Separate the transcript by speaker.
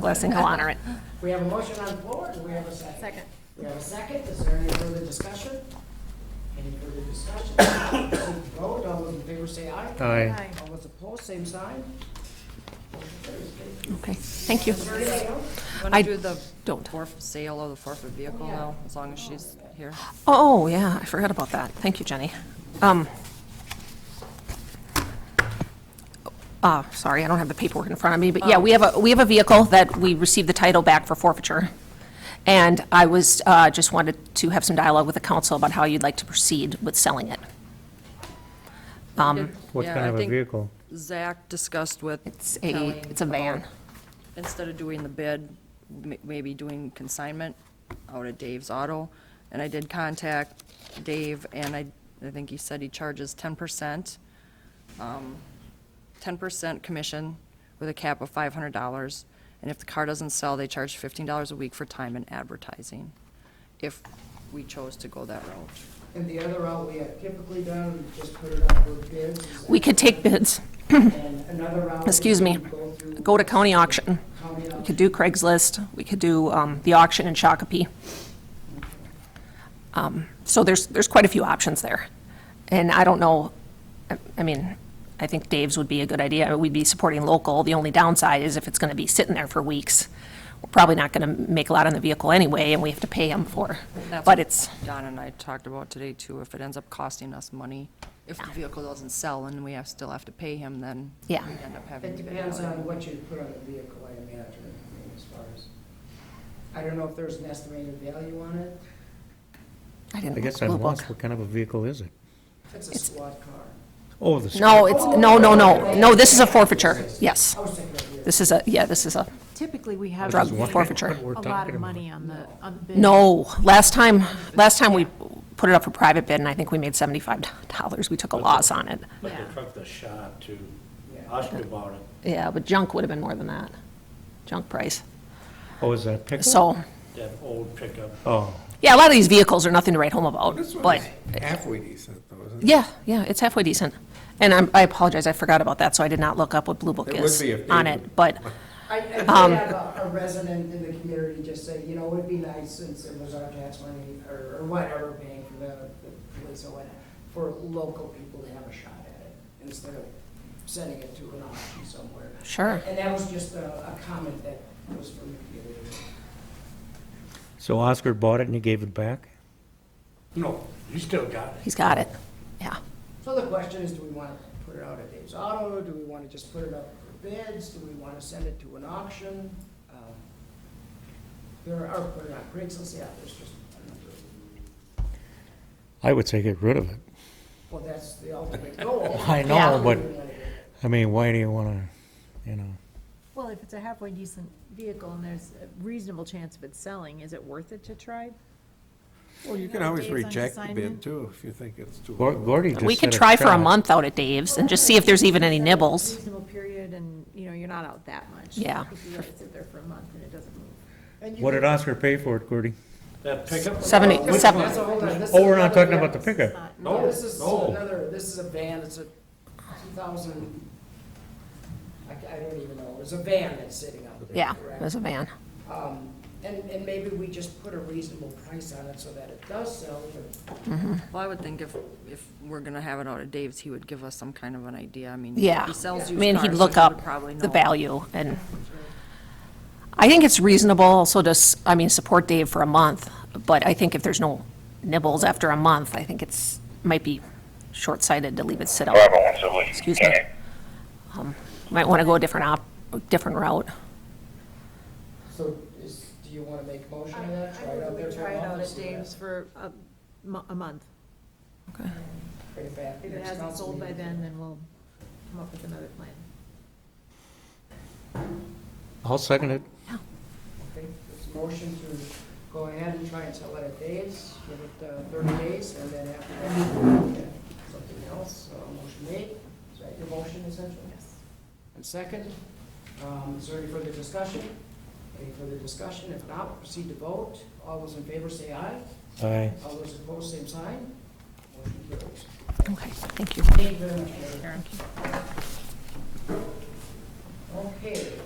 Speaker 1: blessing, he'll honor it.
Speaker 2: We have a motion on the floor, do we have a second?
Speaker 3: Second.
Speaker 2: We have a second, is there any further discussion? Any further discussion? Proceed to Vote, all those in favor say aye.
Speaker 3: Aye.
Speaker 2: All those opposed, same sign.
Speaker 1: Okay, thank you.
Speaker 4: Want
Speaker 1: I
Speaker 4: to do the
Speaker 1: don't.
Speaker 4: forf- sale of the forfeit vehicle now, as long as she's here?
Speaker 1: Oh, yeah, I forgot about that. Thank you, Jenny. Um, uh, sorry, I don't have the paperwork in front of me, but
Speaker 4: Oh.
Speaker 1: yeah, we have a, we have a vehicle that we received the title back for forfeiture. And I was, uh, just wanted to have some dialogue with the council about how you'd like to proceed with selling it. Um,
Speaker 5: What
Speaker 4: Yeah,
Speaker 5: kind
Speaker 4: I
Speaker 5: of a
Speaker 4: think
Speaker 5: vehicle?
Speaker 4: Zach discussed with
Speaker 1: It's a,
Speaker 4: Kelly,
Speaker 1: it's a van.
Speaker 4: instead of doing the bid, m- maybe doing consignment out at Dave's Auto. And I did contact Dave, and I, I think he said he charges ten percent, um, ten percent commission with a cap of five hundred dollars. And if the car doesn't sell, they charge fifteen dollars a week for time and advertising, if we chose to go that route.
Speaker 2: And the other route we have typically done, we just put it out for bids.
Speaker 1: We could take bids,
Speaker 2: And another route.
Speaker 1: excuse me,
Speaker 2: we could go through
Speaker 1: go to county auction.
Speaker 2: county
Speaker 1: We
Speaker 2: auction.
Speaker 1: could do Craigslist, we could do um, the auction in Shakopee. Um, So there's, there's quite a few options there. And I don't know, I- I mean, I think Dave's would be a good idea. We'd be supporting local. The only downside is if it's going to be sitting there for weeks, we're probably not going to make a lot on the vehicle anyway, and we have to pay him for.
Speaker 4: That's
Speaker 1: But
Speaker 4: what
Speaker 1: it's,
Speaker 4: Don and I talked about today too, if it ends up costing us money, if the vehicle doesn't sell and we have, still have to pay him, then we
Speaker 1: Yeah.
Speaker 4: end up having
Speaker 2: It
Speaker 4: to bid it
Speaker 2: depends
Speaker 4: out.
Speaker 2: on what you put on the vehicle, I imagine, I mean, as far as, I don't know if there's an estimated value on it.
Speaker 1: I
Speaker 5: I
Speaker 1: didn't look
Speaker 5: guess
Speaker 1: at
Speaker 5: I'm
Speaker 1: the book.
Speaker 5: lost. What kind of a vehicle is it?
Speaker 2: It's a squad car.
Speaker 5: Oh, the.
Speaker 1: No, it's, no, no, no, no, this is a forfeiture, yes.
Speaker 2: I was thinking of you.
Speaker 1: This is a, yeah, this is a,
Speaker 3: Typically, we have
Speaker 1: Drug
Speaker 3: a
Speaker 1: forfeiture.
Speaker 3: lot of money on the, on the bid.
Speaker 1: no, last time, last time we put it up for private bid, and I think we made seventy-five dollars, we took a loss on it.
Speaker 6: But
Speaker 3: Yeah.
Speaker 6: the truck that shot to, asked about it.
Speaker 1: Yeah, but junk would have been more than that, junk price.
Speaker 5: Oh, is that a pickup?
Speaker 1: So,
Speaker 6: that old pickup.
Speaker 5: Oh,
Speaker 1: yeah, a lot of these vehicles are nothing to write home about,
Speaker 7: This one
Speaker 1: but,
Speaker 7: is halfway decent, though, isn't it?
Speaker 1: yeah, yeah, it's halfway decent. And I'm, I apologize, I forgot about that, so I did not look up what Blue Book
Speaker 7: It would
Speaker 1: is
Speaker 7: be if they
Speaker 1: on
Speaker 7: would-
Speaker 1: it, but,
Speaker 2: I, I did have a a resident in the community just say, you know, it'd be nice since it was our tax money or, or whatever paying for the, the police or whatnot, for local people to have a shot at it instead of sending it to an auction somewhere.
Speaker 1: Sure.
Speaker 2: And that was just a, a comment that was from the community.
Speaker 5: so Oscar bought it and he gave it back?
Speaker 6: No, you still got it.
Speaker 1: he's got it, yeah.
Speaker 2: So the question is, do we want to put it out at Dave's Auto? Do we want to just put it up for bids? Do we want to send it to an auction? Um, There are, put it on Craigslist, yeah, there's just, a number of-
Speaker 5: I would say get rid of it.
Speaker 2: well, that's the ultimate goal.
Speaker 5: I know, but, I mean, why do you wanna, you know?
Speaker 3: Well, if it's a halfway decent vehicle and there's a reasonable chance of it selling, is it worth it to try?
Speaker 7: Well, you
Speaker 3: No,
Speaker 7: can always
Speaker 3: days on
Speaker 7: reject the
Speaker 3: assignment.
Speaker 7: bid, too, if you think it's too
Speaker 5: Gor-
Speaker 7: low.
Speaker 5: Gordy just
Speaker 1: We could
Speaker 5: said it
Speaker 1: try for a
Speaker 5: shot.
Speaker 1: month out at Dave's and just see if there's even any nibbles.
Speaker 3: Reasonable period and, you know, you're not out that much.
Speaker 1: Yeah.
Speaker 3: If you let it sit there for a month and it doesn't move.
Speaker 5: What did Oscar pay for it, Gordy?
Speaker 6: That pickup.
Speaker 1: Seventy-
Speaker 6: Well,
Speaker 1: seven-
Speaker 2: That's a whole nother- this
Speaker 5: Oh,
Speaker 2: is
Speaker 5: we're not
Speaker 2: another-
Speaker 5: talking about the pickup.
Speaker 2: No,
Speaker 6: No,
Speaker 2: this is
Speaker 6: no.
Speaker 2: another, this is a van, it's a two thousand, I, I don't even know, it's a van that's sitting out there.
Speaker 1: Yeah,
Speaker 2: correct?
Speaker 1: it was a van.
Speaker 2: Um, And, and maybe we just put a reasonable price on it so that it does sell, but
Speaker 4: Well, I would think if, if we're gonna have it out at Dave's, he would give us some kind of an idea, I mean.
Speaker 1: Yeah.
Speaker 4: He sells
Speaker 1: I
Speaker 4: used
Speaker 1: mean,
Speaker 4: cars,
Speaker 1: he'd
Speaker 4: so
Speaker 1: look
Speaker 4: he would
Speaker 1: up
Speaker 4: probably
Speaker 1: the
Speaker 4: know.
Speaker 1: value, and I think it's reasonable also to, s- I mean, support Dave for a month, but I think if there's no nibbles after a month, I think it's, might be short-sighted to leave it sit out.
Speaker 8: However, once a week.
Speaker 1: Excuse me. Um, Might want to go a different op, different route.
Speaker 2: So is, do you want to make a motion on that?
Speaker 3: I
Speaker 2: it
Speaker 3: would
Speaker 2: out there
Speaker 3: we
Speaker 2: for a
Speaker 3: try it
Speaker 2: month
Speaker 3: out
Speaker 2: and
Speaker 3: at
Speaker 2: see what-
Speaker 3: Dave's for a, mo- a month.
Speaker 2: Bring it back
Speaker 3: If it
Speaker 2: next
Speaker 3: hasn't
Speaker 2: council
Speaker 3: sold by
Speaker 2: meeting.
Speaker 3: then, then we'll come up with another plan.
Speaker 5: I'll second it.
Speaker 2: Okay, it's a motion to go ahead and try and sell it at Dave's, give it uh, thirty days, and then after that, we'll look at something else, so a motion made. Is that your motion essentially?
Speaker 3: Yes.
Speaker 2: And second, um, is there any further discussion? Any further discussion? If not, proceed to vote. All those in favor say aye.
Speaker 5: Aye.
Speaker 2: All those opposed, same sign. Motion carries.
Speaker 1: Okay, thank you.
Speaker 2: Thank you very much, Mayor. Okay.